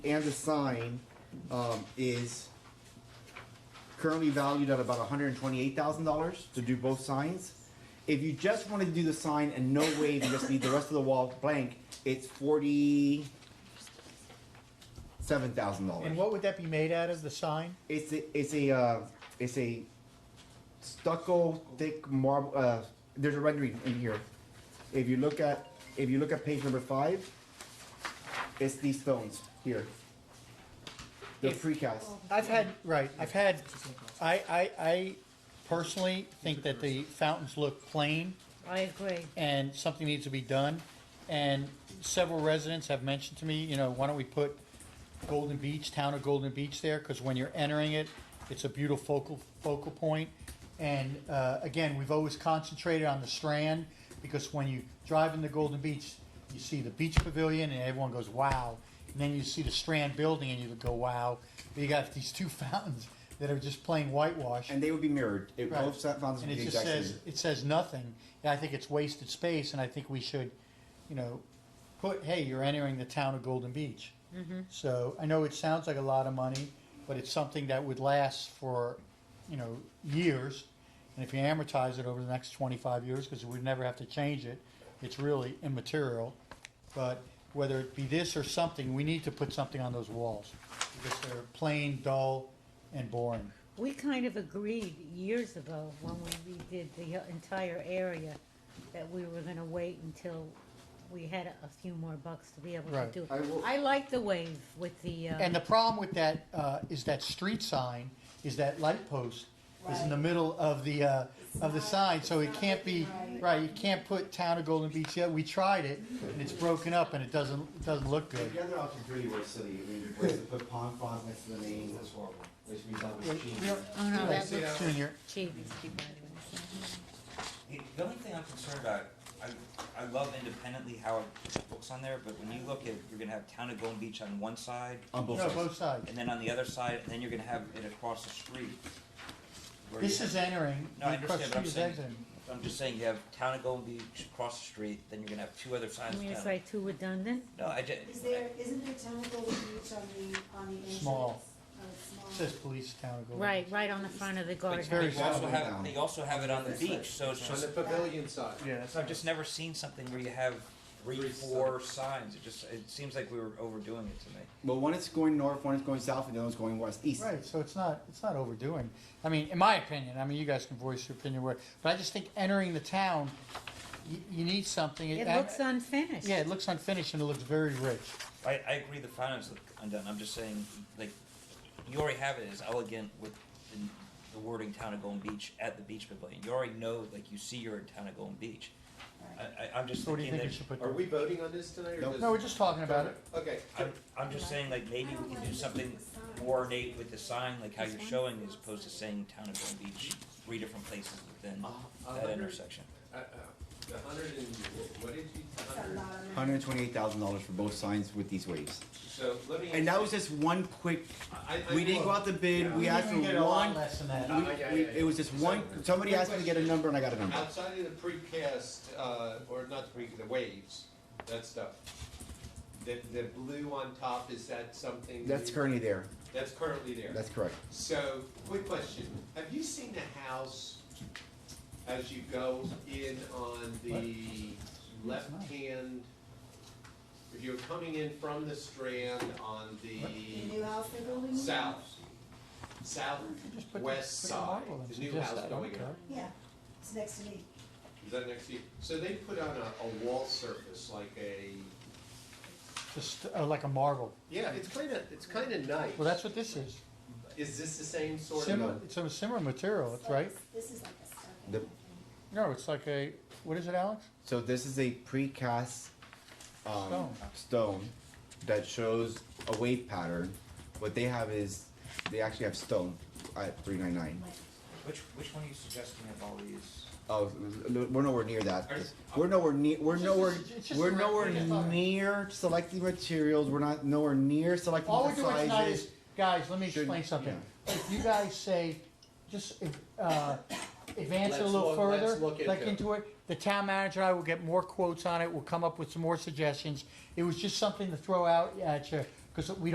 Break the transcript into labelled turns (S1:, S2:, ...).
S1: and the sign, um, is currently valued at about hundred and twenty-eight thousand dollars to do both signs. If you just wanted to do the sign and no wave, you just need the rest of the wall blank, it's forty-seven thousand
S2: And
S1: dollars.
S2: what would that be made out of, the sign?
S1: It's a, it's a, uh, it's a stucco thick marble, uh, there's a rendering in here. If you look at, if you look at page number five, it's these stones here. The
S2: If-
S1: precast.
S2: I've had, right, I've had, I, I, I personally think that the fountains look plain
S3: I agree.
S2: and something needs to be done. And several residents have mentioned to me, you know, why don't we put Golden Beach, town of Golden Beach there? Because when you're entering it, it's a beautiful focal, focal point. And uh, again, we've always concentrated on the Strand because when you drive into Golden Beach, you see the beach pavilion and everyone goes, wow. And then you see the Strand building and you go, wow. But you got these two fountains that are just plain whitewash.
S1: And they would be mirrored. It,
S2: Right.
S1: Both set fountains
S2: And
S1: would be
S2: it
S1: the
S2: just
S1: exact
S2: says,
S1: same.
S2: it says nothing, and I think it's wasted space, and I think we should, you know, put, hey, you're entering the town of Golden Beach. So, I know it sounds like a lot of money, but it's something that would last for, you know, years, and if you amortize it over the next twenty-five years, because we'd never have to change it, it's really immaterial, but whether it be this or something, we need to put something on those walls, because they're plain, dull, and boring.
S3: We kind of agreed years ago when we redid the entire area that we were gonna wait until we had a few more bucks to be able to
S2: Right.
S3: do.
S1: I will-
S3: it. I like the wave with the,
S2: And
S3: uh,
S2: the problem with that uh, is that street sign is that light post is in the middle of the uh, of the sign, so it can't be right. You can't put town of Golden Beach. Yeah, we tried it, and it's broken up, and it doesn't it doesn't look good.
S1: The other option really was silly, I mean, was to put pond fonts next to the names, that's horrible, which we thought was cheap.
S2: We don't-
S3: oh no, that
S2: Junior,
S3: looks cheap.
S4: Hey, The only thing I'm concerned about, I, I love independently how it looks on there, but when you look at, you're gonna have Town of Golden Beach on one side,
S1: On both
S2: no,
S1: sides.
S2: both sides.
S4: and then on the other side, and then you're gonna have it across the street. where
S2: This
S4: you-
S2: is entering.
S4: No, I
S2: and across
S4: understand, but I'm
S2: street is
S4: saying-
S2: exiting.
S4: I'm just saying, you have Town of Golden Beach across the street, then you're gonna have two other
S3: I
S4: signs.
S3: mean,
S4: down.
S3: it's like too redundant.
S4: No, I ju-
S5: Is there, isn't there technical beach on the, on the entrance?
S2: Small.
S5: Oh, it's
S2: It
S5: small.
S2: says police town of Golden.
S3: Right, right on the front of the
S4: but
S3: guardhouse.
S2: very
S4: you also
S1: solid.
S4: have, they also have it on the beach, so it's
S6: On the
S4: just,
S6: pavilion side.
S2: Beach. Yeah,
S4: so I've just never seen something where you have three,
S6: Three
S4: four signs, it just, it seems like we were overdoing it to me.
S1: But one is going north, one is going south, and the other one's going west, east.
S2: Right, so it's not, it's not overdoing. I mean, in my opinion, I mean, you guys can voice your opinion where, but I just think entering the town, you, you need something.
S3: It
S2: I-
S3: looks unfinished.
S2: Yeah, it looks unfinished and it looks very rich.
S4: I, I agree the finance look undone. I'm just saying, like, you already have it as elegant with the, the wording "Town of Golden Beach" at the beach pavilion. You already know, like, you see you're in Town of Golden Beach. I, I, I'm just
S2: So what do you
S4: thinking
S2: think we
S4: that.
S2: should put
S6: Are
S2: there?
S6: we voting on this tonight or
S1: Nope.
S6: just?
S2: No, we're just talking about it.
S6: Okay.
S4: I'm, I'm just saying, like, maybe we can do something more ornate with the sign, like how you're showing, as opposed to saying "Town of Golden Beach" three different places within
S6: A
S4: that
S6: hundred-
S4: intersection.
S6: uh, uh, The hundred and, what did you, a
S5: It's a
S6: hundred?
S5: lot of money.
S1: Hundred and twenty-eight thousand dollars for both signs with these waves.
S6: So let me.
S1: And that was just one quick,
S6: I- I-
S1: we didn't go out to bid, we asked for one,
S2: Less than that.
S1: we-
S6: Uh, yeah,
S1: we-
S6: yeah, yeah.
S1: it was just one, somebody asked me to get a number and I got a number.
S6: Outside of the precast, uh, or not the pre, the waves, that stuff. The, the blue on top, is that something?
S1: That's
S6: you-
S1: currently there,
S6: That's currently there.
S1: that's correct.
S6: So, quick question, have you seen the house as you go in on the left-hand? If you're coming in from the Strand on
S5: The
S6: the
S5: new house they're building?
S6: south,
S2: Just put the-
S6: southwest
S2: put the
S6: side,
S2: marble and
S6: the new
S2: suggest
S6: house
S2: that, I don't
S6: going
S2: care.
S6: up,
S5: Yeah, it's next to me.
S6: is that next to you? So they put on a, a wall surface like a,
S2: Just uh, like a marble.
S6: yeah, it's kinda, it's kinda nice.
S2: Well, that's what this is.
S6: Is this the same sort
S2: Similar,
S6: of?
S2: it's a similar material, Oh, it's right.
S5: This is like a stucco.
S1: The-
S2: No, it's like a, what is it, Alex?
S1: So this is a precast um,
S2: Stone.
S1: stone that shows a wave pattern. What they have is they actually have stone at 399.
S4: Which which one are you suggesting of all these?
S1: Oh, we're nowhere near that.
S6: Are you-
S1: We're nowhere near. We're
S2: It's just-
S1: nowhere.
S2: it's just
S1: We're
S2: a
S1: nowhere
S2: rectangle.
S1: near selecting materials. We're not nowhere near selecting
S2: All
S1: the
S2: we're doing tonight
S1: sizes.
S2: is, guys, let me explain
S1: Shouldn't-
S2: something.
S1: yeah.
S2: If you guys say, just, uh, advance it a
S6: Let's
S2: little
S6: look-
S2: further,
S6: let's look
S2: look
S6: into
S2: into
S6: it.
S2: it, the town manager and I will get more quotes on it, we'll come up with some more suggestions. It was just something to throw out at you, because we